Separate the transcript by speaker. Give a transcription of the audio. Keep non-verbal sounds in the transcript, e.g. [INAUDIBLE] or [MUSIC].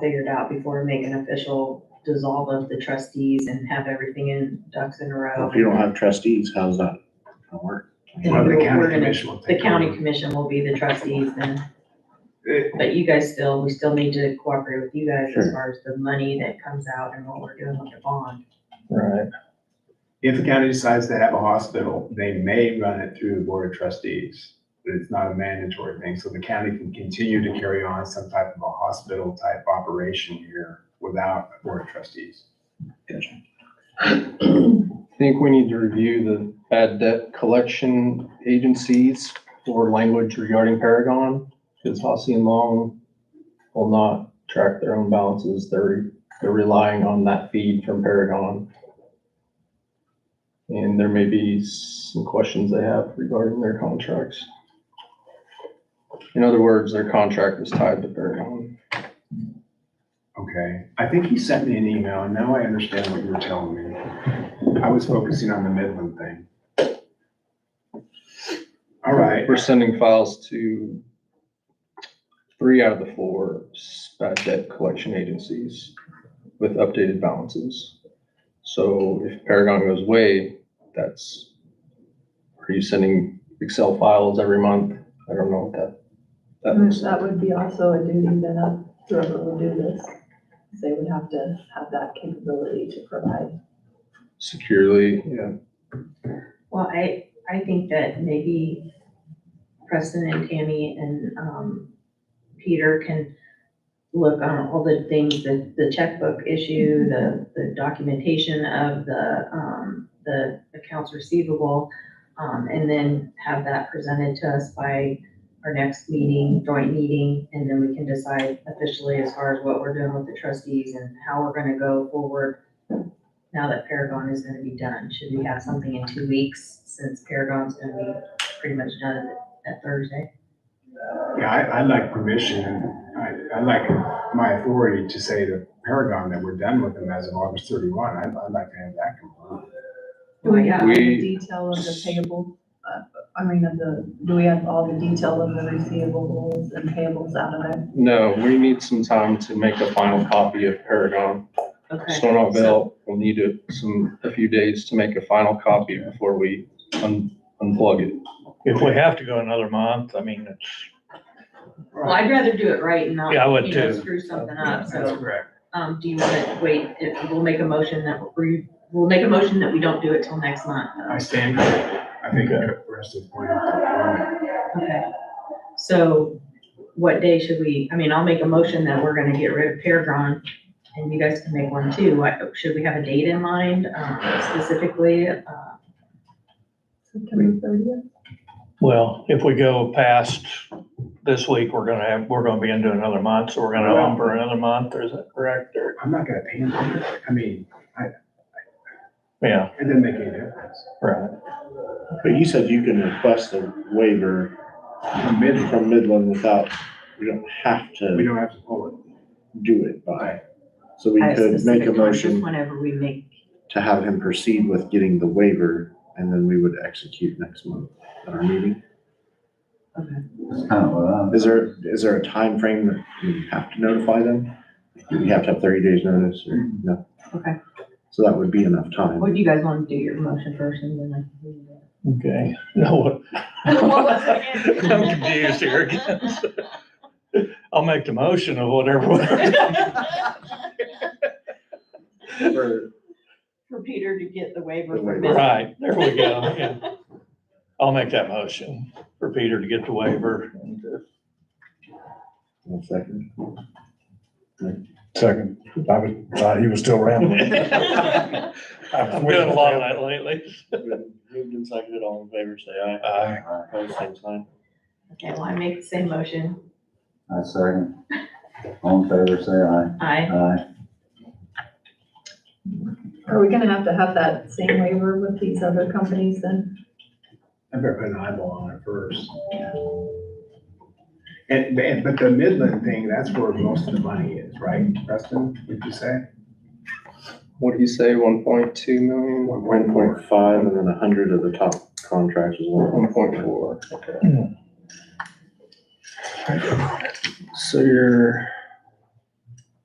Speaker 1: figured out before we make an official dissolve of the trustees and have everything in ducks in a
Speaker 2: Well,
Speaker 1: row.
Speaker 2: If you don't have trustees, how's that gonna work?
Speaker 1: Well,
Speaker 3: The
Speaker 1: we're
Speaker 3: county
Speaker 1: gonna-
Speaker 3: commission will
Speaker 1: The
Speaker 3: take
Speaker 1: county
Speaker 3: over.
Speaker 1: commission will be the trustees then,
Speaker 3: It-
Speaker 1: but you guys still, we still need to cooperate with you guys as
Speaker 2: Sure.
Speaker 1: far as the money that comes out and what we're doing with the bond.
Speaker 4: Right.
Speaker 3: If the county decides to have a hospital, they may run it through the board of trustees, but it's not a mandatory thing. So the county can continue to carry on some type of a hospital type operation here without a board of trustees.
Speaker 4: I think we need to review the bad debt collection agencies or language regarding Paragon. Because Hossie and Long will not track their own balances. They're, they're relying on that feed from Paragon. And there may be some questions they have regarding their contracts. In other words, their contract is tied to Paragon.
Speaker 3: Okay, I think he sent me an email and now I understand what you were telling me. I was focusing on the Midland thing. All right,
Speaker 4: We're sending files to three out of the four bad debt collection agencies with updated balances. So if Paragon goes away, that's, are you sending Excel files every month? I don't know what that, that looks
Speaker 5: That
Speaker 4: like.
Speaker 5: would be also a duty that uh, whoever will do this, they would have to have that capability to provide.
Speaker 4: Securely, yeah.
Speaker 1: Well, I, I think that maybe Preston and Tammy and, um, Peter can look on all the things, the, the checkbook issue, the, the documentation of the, um, the accounts receivable, um, and then have that presented to us by our next meeting, joint meeting, and then we can decide officially as far as what we're doing with the trustees and how we're gonna go forward now that Paragon is gonna be done, should we have something in two weeks since Paragon's gonna be pretty much done at- at Thursday?
Speaker 3: yeah, I, I'd like permission, and I, I'd like my authority to say to Paragon that we're done with them as of August thirty-one. I'd, I'd like to have that confirmed.
Speaker 5: Do we have all the
Speaker 4: We-
Speaker 5: detail of the payable, uh, I mean, of the, do we have all the detail of the receivables and payables out of there?
Speaker 4: No, we need some time to make a final copy of Paragon.
Speaker 1: Okay,
Speaker 4: Stonerville will need a- some, a few days to make a final copy before we un- unplug it.
Speaker 6: If we have to go another month, I mean, it's,
Speaker 1: well, I'd rather do it right and not,
Speaker 6: Yeah, I would
Speaker 1: you know,
Speaker 6: too.
Speaker 1: screw something up,
Speaker 3: That's
Speaker 1: so,
Speaker 3: correct.
Speaker 1: um, do you wanna wait, if, we'll make a motion that, we, we'll make a motion that we don't do it till next month.
Speaker 3: I stand corrected. I think the rest of the point. is-
Speaker 1: Okay, so what day should we, I mean, I'll make a motion that we're gonna get rid of Paragon, and you guys can make one too, what, should we have a date in mind, um, specifically, uh,
Speaker 5: September thirtieth?
Speaker 6: well, if we go past this week, we're gonna have, we're gonna be into another month, so we're gonna
Speaker 3: Well-
Speaker 6: hump for another month, is that correct? Or,
Speaker 3: I'm not gonna pay him. I mean,
Speaker 6: yeah,
Speaker 3: it doesn't make any difference.
Speaker 6: right.
Speaker 2: But you said you can request a waiver
Speaker 3: From Midland,
Speaker 2: from Midland without, we don't have
Speaker 3: we
Speaker 2: to
Speaker 3: don't have to pull
Speaker 2: do it by. So we
Speaker 1: at a
Speaker 2: could make
Speaker 1: specific
Speaker 2: a
Speaker 1: time, Just
Speaker 2: motion
Speaker 1: whenever we make,
Speaker 2: to have him proceed with getting the waiver and then we would execute next month at our meeting.
Speaker 1: okay.
Speaker 2: Is there, is there a time frame that we have to notify them? Do we have to have thirty days notice or no?
Speaker 1: Okay.
Speaker 2: So that would be enough time.
Speaker 1: What do you guys want to do, your motion first and then I can do that?
Speaker 6: Okay. [LAUGHS] No,
Speaker 1: was it again?
Speaker 6: I'm confused here again. I'll make the motion of whatever.
Speaker 2: For-
Speaker 1: For Peter to get the waiver
Speaker 2: The
Speaker 1: from
Speaker 2: waiver.
Speaker 1: Miss.
Speaker 6: Right, there we go, yeah. I'll make that motion for Peter to get the waiver.
Speaker 2: One second.
Speaker 7: Second, I was, thought he was still
Speaker 1: [LAUGHS]
Speaker 7: rambling.
Speaker 6: I'm doing a lot of that lately.
Speaker 2: Moved and seconded, all in favor, say aye.
Speaker 6: Uh,
Speaker 2: Opposed, same sign.
Speaker 1: Okay, well, I make the same motion.
Speaker 8: I second. All in favor, say
Speaker 1: Aye.
Speaker 8: aye. Aye.
Speaker 5: Are we gonna have to have that same waiver with these other companies then?
Speaker 3: it. I better put an eyeball on it first. And, and, but the Midland thing, that's where most of the money is, right, Preston, would you say?
Speaker 4: What do you say, one point two million?
Speaker 2: One point five and then a hundred of the top contracts is one.
Speaker 4: One point four. So you're